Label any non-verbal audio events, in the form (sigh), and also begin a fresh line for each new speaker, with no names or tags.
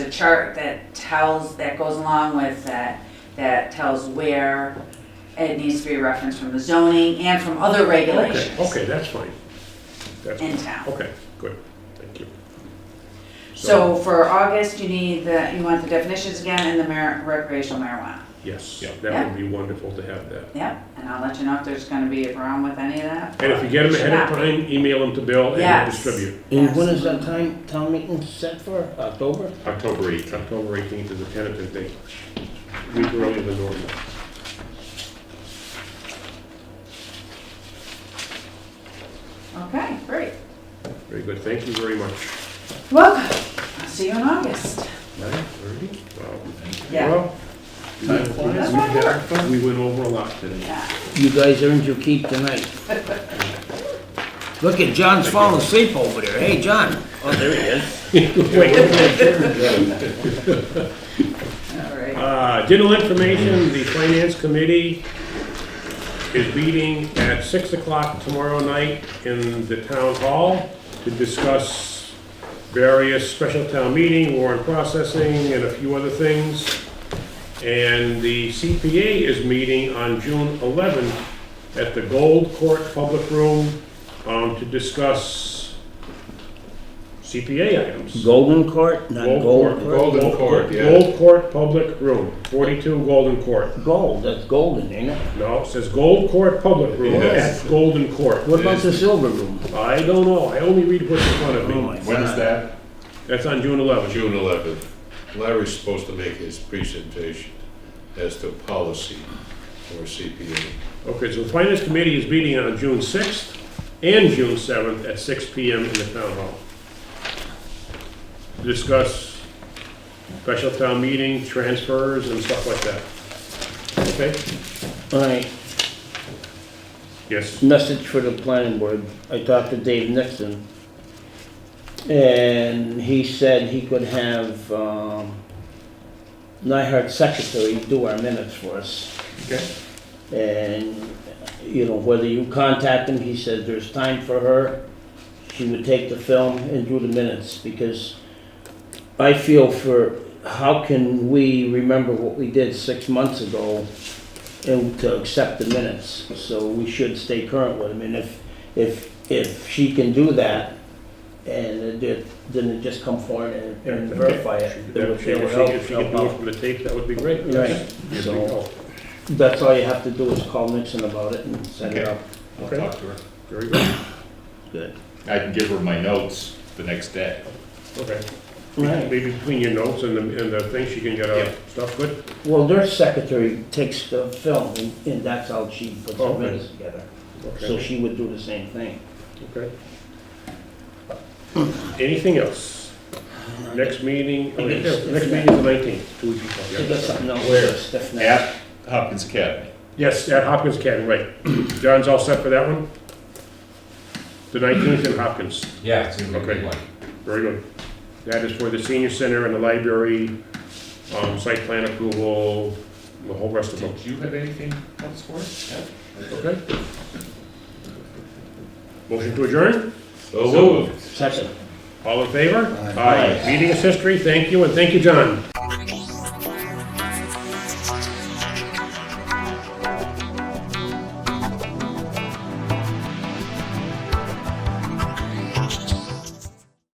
chart that tells, that goes along with that, that tells where it needs to be referenced from the zoning and from other
Okay,
regulations
okay, that's fine. That's,
in town.
okay, good, thank you.
So for August, you need the, you want the definitions again and the mar- recreational marijuana.
Yes,
Yeah.
that would be wonderful to have that.
Yep, and I'll let you know if there's gonna be a problem with any of that.
And if you get them ahead of time, email them to Bill and he'll
Yes.
distribute.
And when is that time, town meeting set for, October?
October 18th.
October 18th is a tentative date, week earlier than normal.
Okay, great.
Very good, thank you very much.
Welcome. I'll see you in August.
Nine thirty? Wow.
Yeah.
Um, Well,
Time flies.
That's what I heard.
We went over a lot (laughs) today.
Yeah.
You guys earned your keep tonight. Look at John's falling asleep over there. Hey, John. Oh, there he is.
All right.
Uh, General information, the finance committee is meeting at six o'clock tomorrow night in the town hall to discuss various special town meeting, warrant processing, and a few other things. And the CPA is meeting on June eleventh at the Gold Court Public Room, um, to discuss CPA items.
Golden Court, not Gold Court.
Golden Court, yeah.
Gold Court Public Room, 42 Golden Court.
Gold, that's golden, ain't it?
No, it says Gold Court Public Room
Yes.
at Golden Court.
What about the silver room?
I don't know, I only read what's in front of
Oh, my
me.
When is
God.
that?
That's on June 11th.
June 11th. Larry's supposed to make his presentation as to policy for CPA.
Okay, so the Finance Committee is meeting on June 6th and June 7th at 6 PM in the Town Hall. Discuss special town meeting, transfers, and stuff like that. Okay?
All right,
Yes.
message for the planning board. I talked to Dave Nixon. And he said he could have, um, Nyhart secretary do our minutes for us.
Okay.
And, you know, whether you contact him, he said there's time for her. She would take the film and do the minutes because I feel for, how can we remember what we did six months ago and to accept the minutes? So we should stay current with them. And if, if, if she can do that and it did- then it just come forward and- and verify it. then we'll
If she
feel
if she
help
could do it
out.
from the tape, that would be great.
Right,
Yes, we
so
will.
that's all you have to do is call Nixon about it and set it
Okay.
up.
I'll
Okay.
talk to her.
Very good,
Good.
I can give her my notes the next day.
okay.
Right.
Maybe between your notes and the, and the things, she can get
Yeah.
our stuff good.
Well, their secretary takes the film, and- and that's how she puts the
Okay.
minutes together. So
Okay,
she would do the same thing.
okay. Anything else? Next meeting, oh, yeah,
Yes.
next meeting is the nineteenth, two weeks before,
She
yeah.
does something else,
Where?
a stiff neck.
At Hopkins Academy.
Yes, at Hopkins Academy, right. John's all set for that one? The nineteenth in Hopkins,
Yeah, it's gonna be a
Okay.
big one.
very good. That is for the senior center and the library, um, site plan approval, the whole rest of them.
Did you have anything else for us?
Okay. Motion to adjourn?
So moved.
Second.
All in favor? Aye. Meeting is history. Thank you, and thank you, John.